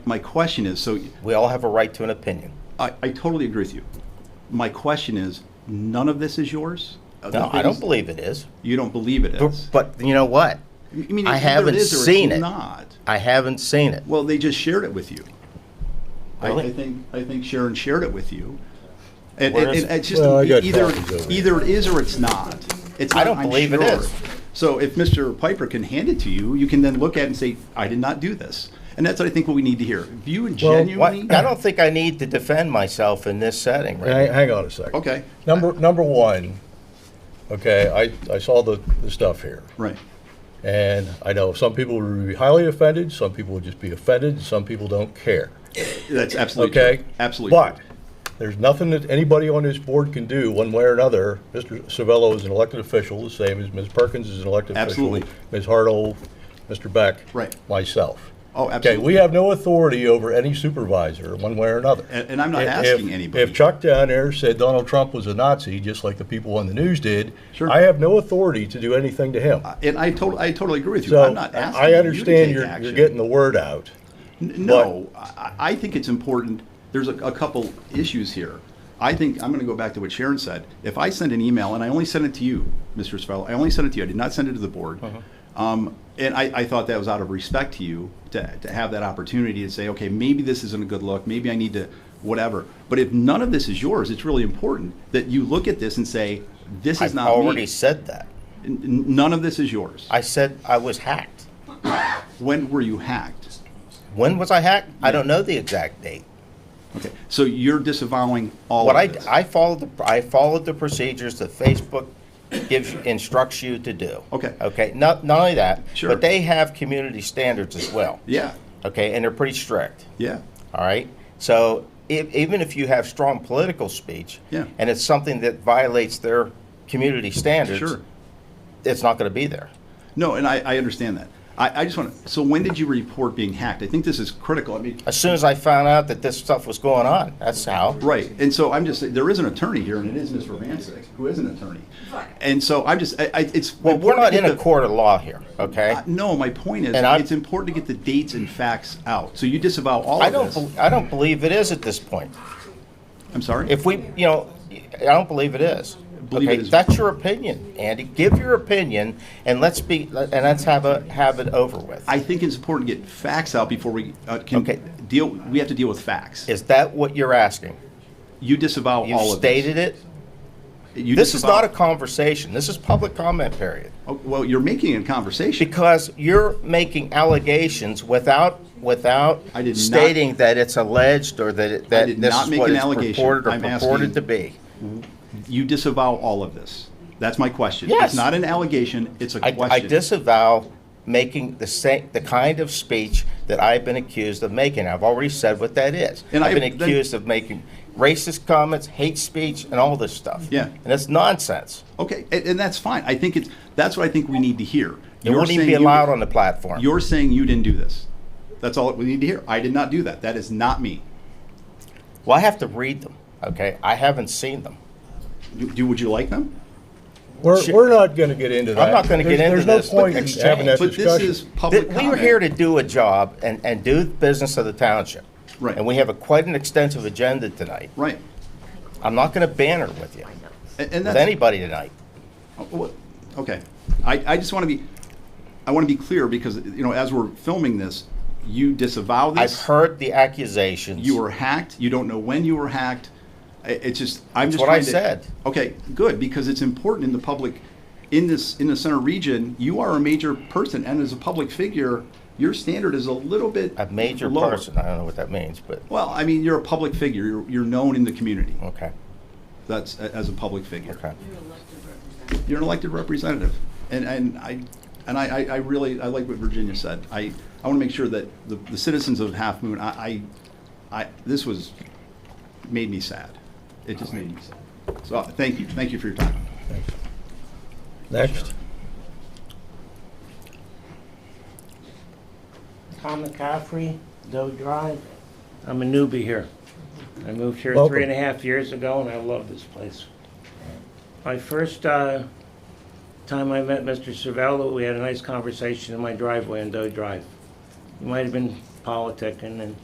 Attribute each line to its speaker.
Speaker 1: My question is, so
Speaker 2: We all have a right to an opinion.
Speaker 1: I, I totally agree with you. My question is, none of this is yours? Of the
Speaker 2: No, I don't
Speaker 1: things-
Speaker 2: believe it is.
Speaker 1: You don't believe it
Speaker 2: But,
Speaker 1: is?
Speaker 2: but you know what?
Speaker 1: I mean,
Speaker 2: I
Speaker 1: it's either
Speaker 2: haven't
Speaker 1: it is or it's
Speaker 2: seen it.
Speaker 1: Not.
Speaker 2: I haven't seen it.
Speaker 1: Well, they just shared it with you. I-
Speaker 2: Really?
Speaker 1: I, think I think Sharon shared it with you. And,
Speaker 2: Where
Speaker 1: and-
Speaker 2: is
Speaker 1: and
Speaker 2: it?
Speaker 1: it's just
Speaker 3: Well, I got
Speaker 1: either
Speaker 3: copies over here.
Speaker 1: either it is or it's not. It's
Speaker 2: I
Speaker 1: not,
Speaker 2: don't
Speaker 1: I'm
Speaker 2: believe it
Speaker 1: sure.
Speaker 2: is.
Speaker 1: So if Mr. Piper can hand it to you, you can then look at it and say, "I did not do this," and that's what I think what we need to hear. If you
Speaker 2: What-
Speaker 1: genuinely,
Speaker 2: I don't think I need to defend myself in this setting right
Speaker 3: Hang, hang on a second.
Speaker 1: okay,
Speaker 3: Number, number one, okay, I, I saw the, the stuff here.
Speaker 1: right,
Speaker 3: And I know some people would be highly offended, some people would just be offended, and some people don't care.
Speaker 1: that's absolutely true.
Speaker 3: Okay?
Speaker 1: absolutely. true.
Speaker 3: But there's nothing that anybody on this board can do, one way or another. Mr. Savello is an elected official, the same as Ms. Perkins is an elected official.
Speaker 1: Absolutely.
Speaker 3: Ms. Hartle, Mr. Beck.
Speaker 1: Right.
Speaker 3: Myself.
Speaker 1: Oh,
Speaker 3: Okay,
Speaker 1: absolutely.
Speaker 3: we have no authority over any supervisor, one way or another.
Speaker 1: And- and I'm not
Speaker 3: If-
Speaker 1: asking
Speaker 3: if-
Speaker 1: anybody.
Speaker 3: If Chuck down there said Donald Trump was a Nazi, just like the people on the news did,
Speaker 1: Sure.
Speaker 3: I have no authority to do anything to him.
Speaker 1: and I totally, I totally agree with you.
Speaker 3: So
Speaker 1: I'm not asking.
Speaker 3: I
Speaker 1: you to
Speaker 3: understand
Speaker 1: take
Speaker 3: you're, you're
Speaker 1: action.
Speaker 3: getting the word out.
Speaker 1: N- No, I, I think it's important, there's a, a couple issues here. I think, I'm gonna go back to what Sharon said. If I send an email, and I only sent it to you, Mr. Spell, I only sent it to you, I did not send it to the board.
Speaker 3: Uh-huh.
Speaker 1: Um, and I, I thought that was out of respect to you, to, to have that opportunity to say, okay, maybe this isn't a good look, maybe I need to, whatever. But if none of this is yours, it's really important that you look at this and say, this
Speaker 2: now.
Speaker 1: is
Speaker 2: I've
Speaker 1: not
Speaker 2: already
Speaker 1: me.
Speaker 2: said that.
Speaker 1: N- n- None of this is yours.
Speaker 2: I said I was hacked.
Speaker 1: When were you hacked?
Speaker 2: When was I hacked? I don't know the exact date.
Speaker 1: Okay, so you're disavowing all
Speaker 2: What I,
Speaker 1: of this.
Speaker 2: I followed the, I followed the procedures that Facebook gives, instructs you to do.
Speaker 1: Okay.
Speaker 2: Okay, not, not only that,
Speaker 1: Sure.
Speaker 2: but they have community standards as well.
Speaker 1: Yeah,
Speaker 2: Okay, and they're pretty strict.
Speaker 1: yeah.
Speaker 2: All right. So if, even if you have strong political speech,
Speaker 1: Yeah.
Speaker 2: and it's something that violates their community standards,
Speaker 1: Sure.
Speaker 2: it's not going to be there.
Speaker 1: No, and I, I understand that. I, I just want to, so when did you report being hacked? I think this is critical. I mean,
Speaker 2: As soon as I found out that this stuff was going on, that's how.
Speaker 1: right. And so I'm just, saying there is an attorney here, and it is Mr. Vancic, who is an attorney. And so I'm just, I, I, it's.
Speaker 2: Well, we're
Speaker 1: important
Speaker 2: not
Speaker 1: to
Speaker 2: in
Speaker 1: get
Speaker 2: a
Speaker 1: the-
Speaker 2: court of law here, okay?
Speaker 1: Uh, No, my point is,
Speaker 2: And I'm-
Speaker 1: it's important to get the dates and facts out. So you disavow all
Speaker 2: I
Speaker 1: of
Speaker 2: don't.
Speaker 1: this.
Speaker 2: bel I don't believe it is at this point.
Speaker 1: I'm sorry?
Speaker 2: If we, you know, I don't believe it is.
Speaker 1: Believe it
Speaker 2: okay,
Speaker 1: is-
Speaker 2: that's your opinion, Andy. Give your opinion, and let's be, and let's have a have it over with.
Speaker 1: I think it's important to get facts out before we uh, can
Speaker 2: Okay.
Speaker 1: deal, we have to deal with facts.
Speaker 2: is that what you're asking?
Speaker 1: You disavow
Speaker 2: You
Speaker 1: all of this.
Speaker 2: stated it.
Speaker 1: You
Speaker 2: This is
Speaker 1: disavow-
Speaker 2: not a conversation. This is public comment period.
Speaker 1: Oh, Well, you're making a conversation.
Speaker 2: Because you're making allegations without, without
Speaker 1: I did not-
Speaker 2: stating that it's alleged or that it, that
Speaker 1: did
Speaker 2: this
Speaker 1: not
Speaker 2: is
Speaker 1: make
Speaker 2: what
Speaker 1: an
Speaker 2: it's
Speaker 1: allegation.
Speaker 2: purported or
Speaker 1: I'm
Speaker 2: purported
Speaker 1: asking-
Speaker 2: to be.
Speaker 1: You disavow all of this. That's my question.
Speaker 2: Yes.
Speaker 1: It's not an allegation, it's a
Speaker 2: I, I
Speaker 1: question.
Speaker 2: disavow making the same, the kind of speech that I've been accused of making. I've already said what that is.
Speaker 1: And
Speaker 2: I've
Speaker 1: I-
Speaker 2: been
Speaker 1: then-
Speaker 2: accused of making racist comments, hate speech, and all this stuff.
Speaker 1: Yeah.
Speaker 2: And it's nonsense.
Speaker 1: Okay, and, and that's fine. I think it's, that's what I think we need to hear.
Speaker 2: It
Speaker 1: You're
Speaker 2: wouldn't even
Speaker 1: saying
Speaker 2: be
Speaker 1: you-
Speaker 2: allowed on the platform.
Speaker 1: You're saying you didn't do this. That's all we need to hear. I did not do that. That is not me.
Speaker 2: Well, I have to read them, okay? I haven't seen them.
Speaker 1: Do, do- would you like them?
Speaker 3: We're,
Speaker 2: Sure.
Speaker 3: we're not going to get into that.
Speaker 2: I'm not gonna get
Speaker 3: There's-
Speaker 2: into this,
Speaker 3: There's
Speaker 2: but
Speaker 3: no point in
Speaker 2: that's
Speaker 3: having that
Speaker 2: changed.
Speaker 1: But this
Speaker 3: discussion.
Speaker 1: is public
Speaker 2: Th- We
Speaker 1: comment.
Speaker 2: are here to do a job and, and do the business of the township.
Speaker 1: Right.
Speaker 2: And we have a quite an extensive agenda tonight.
Speaker 1: Right.
Speaker 2: I'm not gonna banter with you,
Speaker 1: And, and
Speaker 2: with
Speaker 1: that's.
Speaker 2: anybody tonight.
Speaker 1: Oh, what- Okay. I, I just want to be, I want to be clear because, you know, as we're filming this, you disavow
Speaker 2: I've
Speaker 1: this.
Speaker 2: heard the accusations.
Speaker 1: You were hacked. You don't know when you were hacked. I- It's just I'm just
Speaker 2: what I
Speaker 1: trying to-
Speaker 2: said.
Speaker 1: Okay, good because it's important in the public, in this in the center region. You are a major person, and as a public figure, your standard is a little bit
Speaker 2: A major
Speaker 1: lower.
Speaker 2: person, I don't know what that means, but,
Speaker 1: Well, I mean, you're a public figure. You're, you're known in the community.
Speaker 2: okay,
Speaker 1: That's a- as a public figure.
Speaker 2: okay.
Speaker 1: You're an elected representative, and and I and I, I, I really I like what Virginia said. I I want to make sure that the, the citizens of Half Moon. I, I I this was made me sad. It just made me sad. So thank you, thank you for your time.
Speaker 3: Next.
Speaker 4: Tom McCaffrey, Doe Drive. I'm a newbie here. I moved here
Speaker 3: Welcome.
Speaker 4: three and a half years ago, and I love this place. My first uh, time I met Mr. Cervello, we had a nice conversation in my driveway on Doe Drive. It might have been politicking, and